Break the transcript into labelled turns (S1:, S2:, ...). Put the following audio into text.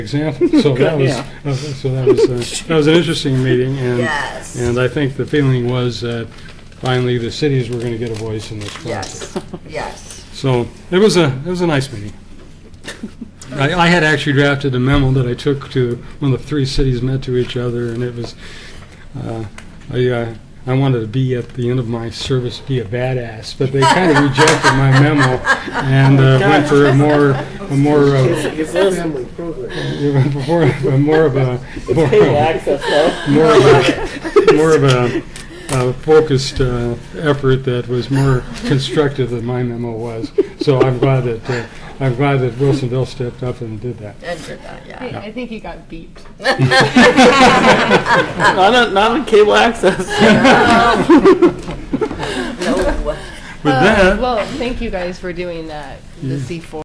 S1: exam. So that was, so that was, uh, that was an interesting meeting, and,
S2: Yes.
S1: and I think the feeling was that finally the cities were going to get a voice in this process.
S2: Yes, yes.
S1: So it was a, it was a nice meeting. I, I had actually drafted a memo that I took to, when the three cities met to each other, and it was, uh, I, uh, I wanted to be at the end of my service, be a badass, but they kind of rejected my memo and uh, went for a more, a more, uh,
S3: It's a family program.
S1: they went for a more of a, more of
S3: Paid
S1: a
S3: access, though.
S1: more of a, more of a uh, focused uh, effort that was more constructive than my memo was. So I'm glad that, uh, I'm glad that Wilsonville stepped up and did that.
S2: Enter that,
S4: I,
S2: yeah.
S4: I think he got beeped.
S3: Not on, not on cable access.
S2: No.
S1: With that,
S4: Uh, Well, thank you guys for doing that, the C4.